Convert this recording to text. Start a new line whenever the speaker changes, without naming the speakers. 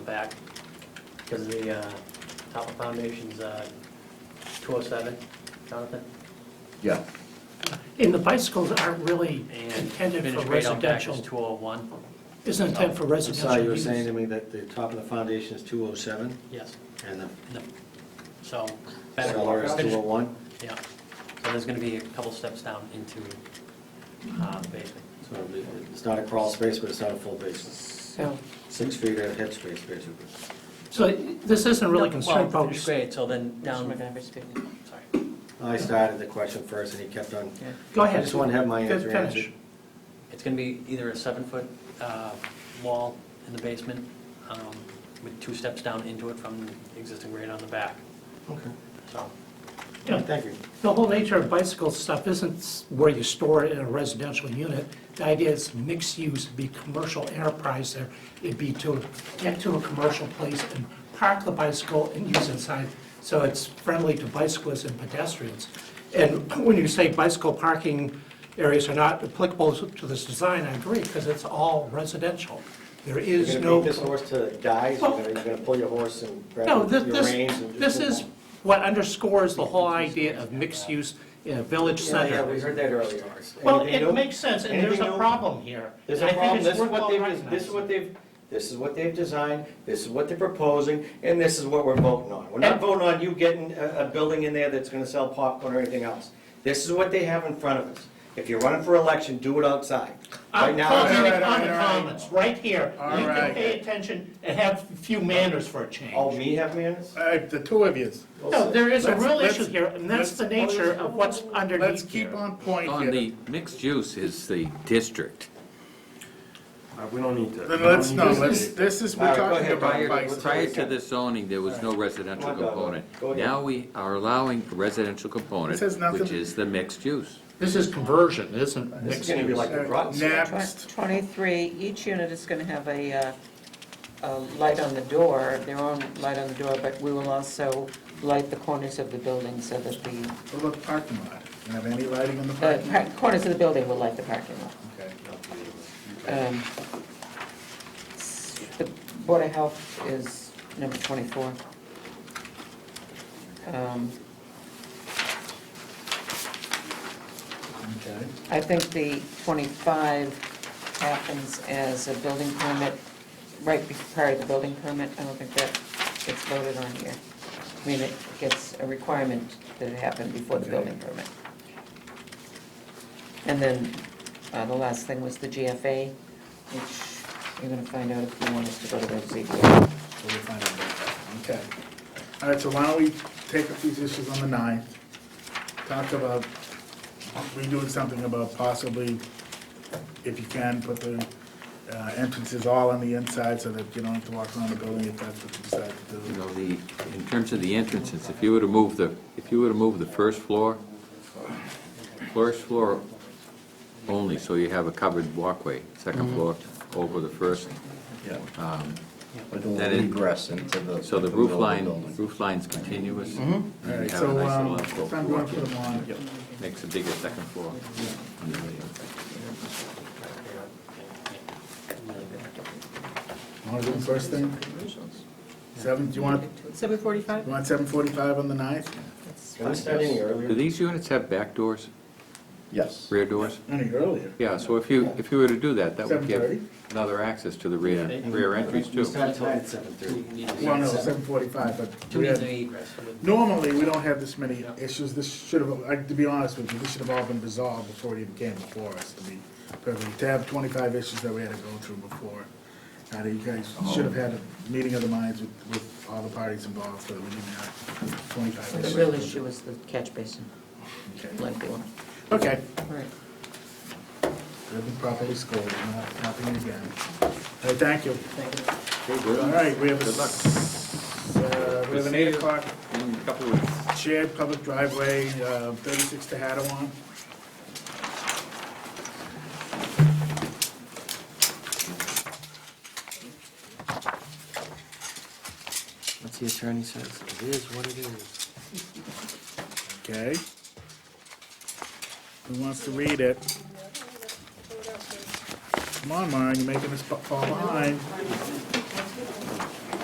back because the uh, top of foundation's uh, 207, Jonathan?
Yeah,
And the bicycles aren't really
And
intended
finish
for
grade out back is
residential,
201?
isn't intended for
I'm sorry, Oh,
residential
you were saying to
use.
me that the top of the foundation is 207
Yes.
and the
No. So, better,
cellar is
finish-
201?
yeah. So there's going to be a couple steps down into uh, the basement.
So it'll be- it's not a crawl space, but it's not a full basement.
Yeah.
Six feet of head space, basically.
So this isn't really
No,
concerned
Well,
about,
finish grade, so then down, sorry.
I started the question first and he kept on.
go
I
ahead,
just want to have my
Good
answer answered.
finish.
It's gonna be either a seven-foot uh, wall in the basement um, with two steps down into it from the existing grade on the back,
Okay.
so.
Yeah.
Thank you.
the whole nature of bicycle stuff isn't s- where you store it in a residential unit. The idea is mixed use, it'd be commercial enterprise there, it'd be to, get to a commercial place and park the bicycle and use inside, so it's friendly to bicyclists and pedestrians. And when you say bicycle parking areas are not applicable to this design, I agree, because it's all residential. There
You're
is
going
no.
to beat this horse to dies, you're
Well-
going to pull your horse and grab
No,
your
this,
reins
this,
and
this
just...
is what underscores the whole idea of mixed use in a village
Yeah, yeah, we
center.
heard that earlier.
Well,
Anything
it
new?
makes sense, and there's
Anything
a
new?
problem here.
There's a
and I think
problem,
it's
this is
worthwhile
what they've, this
recognizing.
is what they've, this is what they've designed, this is what they're proposing, and this is what we're voting on. We're not
And-
voting on you getting a, a building in there that's gonna sell popcorn or anything else. This is what they have in front of us. If you're running for election, do it outside. Right
I'm
now, it's-
commenting
All
on
right, all right, all
the
right.
comments, right here.
All
You can
right.
pay attention and have a few manners for a
all
change.
oh, me have manners?
All right, the two of yous.
No, there is a
Let's-
real
let's-
issue here, and
let's-
that's the nature of what's
Let's
underneath
keep
here.
on point
On
here.
the mixed use is the district.
Uh, We don't need to.
Then let's,
we
no,
don't need
let's, this is, we're
All right, go
talking
ahead,
about
Brian.
bicycles.
Prior to this zoning, there was no residential
Come on, Doug.
component.
Go ahead.
Now we are allowing a residential component,
It says nothing.
which is the mixed use.
This is conversion, isn't
This is gonna be like the Broughton.
Next,
23, each unit is going to have a, uh, a light on the door, their own light on the door, but we will also light the corners of the building so that the,
what about the parking lot? You have any lighting in the
the
parking lot?
par- corners of the building will light the parking lot.
Okay.
Um, The Board of Health is number 24. Um,
Okay.
I think the 25 happens as a building permit, right be- prior to the building permit. I don't think that gets voted on here. I mean, it gets a requirement that it happened before the building permit. And then uh, the last thing was the GFA, which you're going to find out if you want us to go to those ZBA.
So we'll find out about that. Okay. All right, so why don't we take up these issues on the ninth? Talk about redoing something about possibly, if you can, put the uh, entrances all on the inside so that you don't have to walk around the building if that's what you decide to
You
do.
know, the, in terms of the entrances, if you were to move the, if you were to move the first floor, first floor only, so you have a covered walkway, second floor over the first.
yeah. Um, But
That
the
is-
ingress into the.
So the
middle of
roof line,
building.
roof line's continuous.
All
And
right,
you have a
so,
nice
um,
little
if
alcove
I'm
to
going
walk
to put them on.
Yep.
in. Makes a bigger second floor.
Want to do the first thing? Seven, do you want,
7:45?
you want seven forty-five on the ninth?
Can we start any earlier?
Do these units have back doors,
Yes.
rear doors?
Any earlier?
Yeah, so if you, if you were to do that, that would give
7:30?
another access to the rear, rear entries
We
too.
start tonight at 7:30.
Well, no, seven forty-five, but
Two
we
needs
had,
an egress. so the-
normally, we don't have this many uh, issues. This should have, like, to be honest with you, this should have all been resolved before it even came before us, to be perfectly. To have twenty-five issues that we had to go through before. Now, you guys should have had a meeting of the minds with, with all the parties involved, so that we didn't have twenty-five
The
issues.
real issue is the catch basin,
Okay.
like the one.
Okay.
All right.
They've been properly scored, not happening again. All right, thank you. All right, we have a,
Good luck.
s- uh, we have an eight o'clock
In a couple of weeks.
shared public driveway, uh, thirty-six to Hattawan.
What's the attorney says, it is what it is.
Okay. Who wants to read it? Come on, Maren, you're making us fa- fall behind.